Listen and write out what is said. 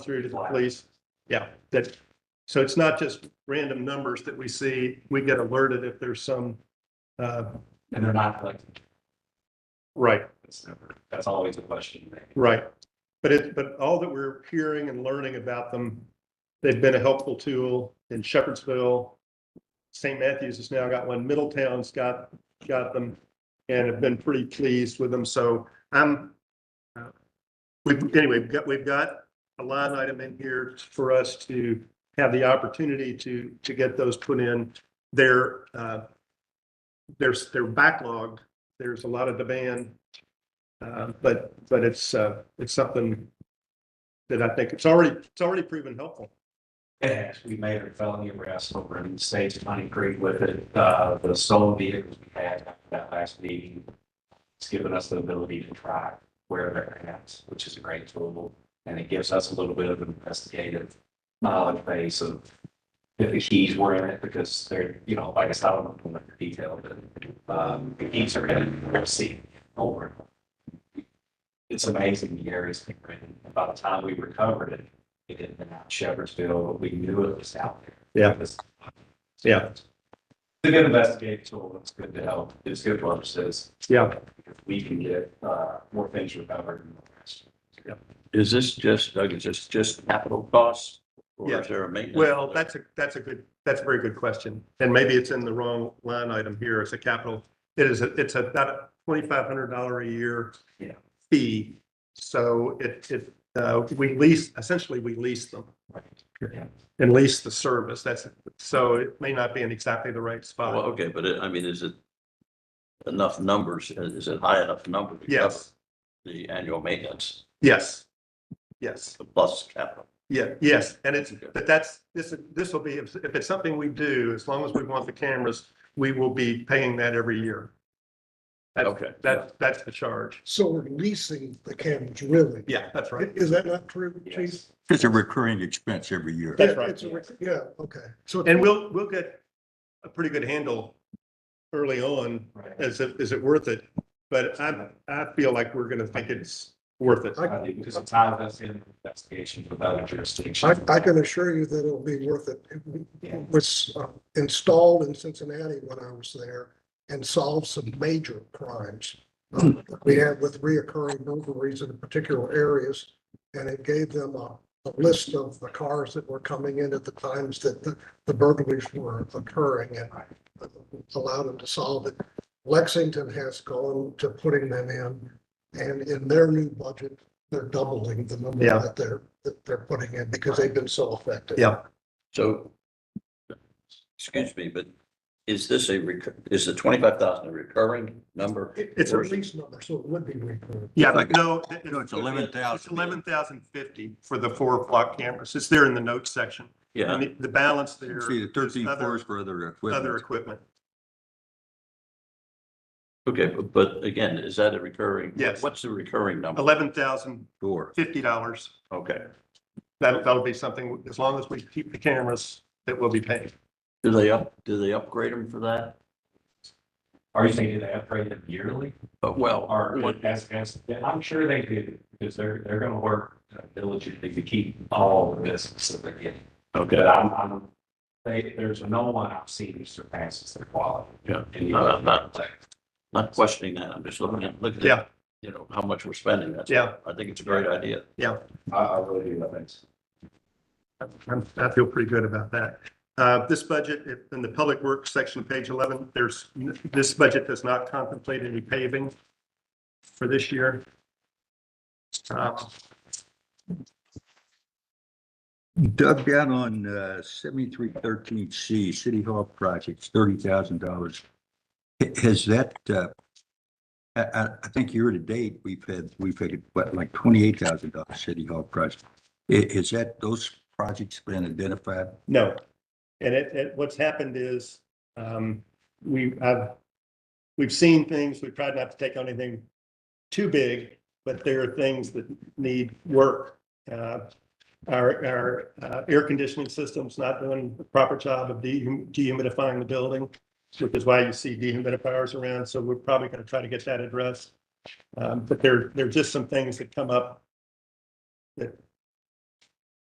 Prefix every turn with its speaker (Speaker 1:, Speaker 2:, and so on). Speaker 1: through to the police. Yeah, that, so it's not just random numbers that we see. We get alerted if there's some, uh,
Speaker 2: And they're not collecting
Speaker 1: right,
Speaker 2: this number. That's always a question.
Speaker 1: right. But it, but all that we're hearing and learning about them, they've been a helpful tool in Shepherdsville. St. Matthews has now got one, Middletown's got, got them and have been pretty pleased with them. So I'm, uh, we've, anyway, we've got, we've got a line item in here for us to have the opportunity to, to get those put in. They're, uh, there's, they're backlogged. There's a lot of demand. Uh, but, but it's, uh, it's something that I think it's already, it's already proven helpful.
Speaker 2: And we made a felony arrest over in the states of Honey Creek with it, uh, the stolen vehicles we had after that last meeting. It's given us the ability to try where they're at, which is a great tool. And it gives us a little bit of an investigative knowledge base of if the keys were in it, because they're, you know, like I said, I don't know the detail, but, um, the keys are in, it. we'll see over. It's amazing the areas they're in. By the time we recovered it, it had been out in Shepherdsville, but we knew it was out there.
Speaker 1: Yeah.
Speaker 2: It was-
Speaker 1: Yeah.
Speaker 2: It's a good investigative tool. It's good to help. It's good to understand.
Speaker 1: Yeah.
Speaker 2: We can get, uh, more things recovered. and all the rest.
Speaker 3: Is this just, Doug, is this just capital costs? Or
Speaker 1: Yeah.
Speaker 3: is there a maintenance?
Speaker 1: Well, that's a, that's a good, that's a very good question. And maybe it's in the wrong line item here. It's a capital. It is, a- it's about a twenty-five hundred dollar a year.
Speaker 2: Yeah.
Speaker 1: Fee. So it, it, uh, we lease, essentially we lease them.
Speaker 2: Right.
Speaker 1: And lease the service. That's, so it may not be in exactly the right
Speaker 3: Well,
Speaker 1: spot.
Speaker 3: Oh, okay, but it- I mean, is it enough numbers? uh, Is it high enough number? to cover
Speaker 1: Yes,
Speaker 3: The annual maintenance
Speaker 1: yes, yes,
Speaker 3: plus capital.
Speaker 1: yeah, yes. And it's, but that's, this, this will be, if if it's something we do, as long as we want the cameras, we will be paying that every year. That's-
Speaker 3: Okay.
Speaker 1: That, that's the charge.
Speaker 4: So we're leasing the cameras, really?
Speaker 1: Yeah, that's right.
Speaker 4: Is that not true, Chief?
Speaker 2: Yes.
Speaker 5: It's a recurring expense every year.
Speaker 1: That's right.
Speaker 4: It's a rec- Yeah, okay. So
Speaker 1: And we'll, we'll get a pretty good handle early on,
Speaker 2: Right.
Speaker 1: as it, is it worth it? But I, I feel like we're gonna think it's worth it.
Speaker 2: I think Because the time that's in investigation with other
Speaker 4: I,
Speaker 2: jurisdictions.
Speaker 4: I can assure you that it'll be worth it. It was uh, installed in Cincinnati when I was there and solved some major crimes. uh, that We had with reoccurring burglaries in particular areas, and it gave them a, a list of the cars that were coming in at the times that the, the burglaries were occurring and allowed them to solve it. Lexington has gone to putting them in, and in their new budget, they're doubling the number
Speaker 1: Yeah.
Speaker 4: that they're, that they're putting in because they've been so effective.
Speaker 1: Yeah.
Speaker 3: So, excuse me, but is this a, recur- is the twenty-five thousand a recurring number?
Speaker 4: It- It's a
Speaker 3: Or is it-
Speaker 4: lease number, so it would be recurring.
Speaker 1: Yeah, but no.
Speaker 5: No, it's eleven
Speaker 1: It's
Speaker 5: thousand.
Speaker 1: eleven thousand fifty for the four block cameras. It's there in the notes section.
Speaker 3: Yeah,
Speaker 1: And the- the balance there,
Speaker 5: See, the thirteen
Speaker 1: other-
Speaker 5: floors for other
Speaker 1: other
Speaker 5: equipment.
Speaker 1: equipment.
Speaker 3: okay, but, but again, is that a recurring?
Speaker 1: Yes.
Speaker 3: What's the recurring number?
Speaker 1: Eleven thousand
Speaker 5: Door.
Speaker 1: fifty dollars.
Speaker 3: Okay.
Speaker 1: That'll, that'll be something, as long as we keep the cameras, that will be paid.
Speaker 3: Do they up, do they upgrade them for that?
Speaker 2: Are you thinking they upgrade them yearly?
Speaker 3: Uh, Well,
Speaker 2: Or
Speaker 3: what-
Speaker 2: as, as, I'm sure they do, because they're, they're gonna work diligently to keep all of this so they get. But
Speaker 3: okay.
Speaker 2: I'm, I'm, they, there's no one I've seen who surpasses their quality.
Speaker 3: Yeah.
Speaker 2: And you-
Speaker 3: No, no, no. not questioning that. I'm just looking at, looking
Speaker 1: Yeah.
Speaker 3: at, you know, how much we're spending. That's,
Speaker 1: Yeah,
Speaker 3: I think it's a great idea.
Speaker 2: I, I really do love it.
Speaker 1: I'm- I feel pretty good about that. Uh, This budget, if- in the Public Works section, page 11, there's, this budget does not contemplate any paving for this year. Uh,
Speaker 5: Doug, down on uh, seventy-three thirteen C, City Hall projects, thirty thousand dollars. Has that, uh, I, I, I think year to date, we've had, we've had, what, like twenty-eight thousand dollars City Hall project. I- Is that, those projects been identified?
Speaker 1: No. And it, it, what's happened is, um, we, I've, we've seen things, we've tried not to take on anything too big, but there are things that need work. Uh, our, our, uh, air conditioning system's not doing the proper job of dehum- dehumidifying the building, which is why you see dehumidifiers around, so we're probably gonna try to get that addressed. Um, but there, there are just some things that come up that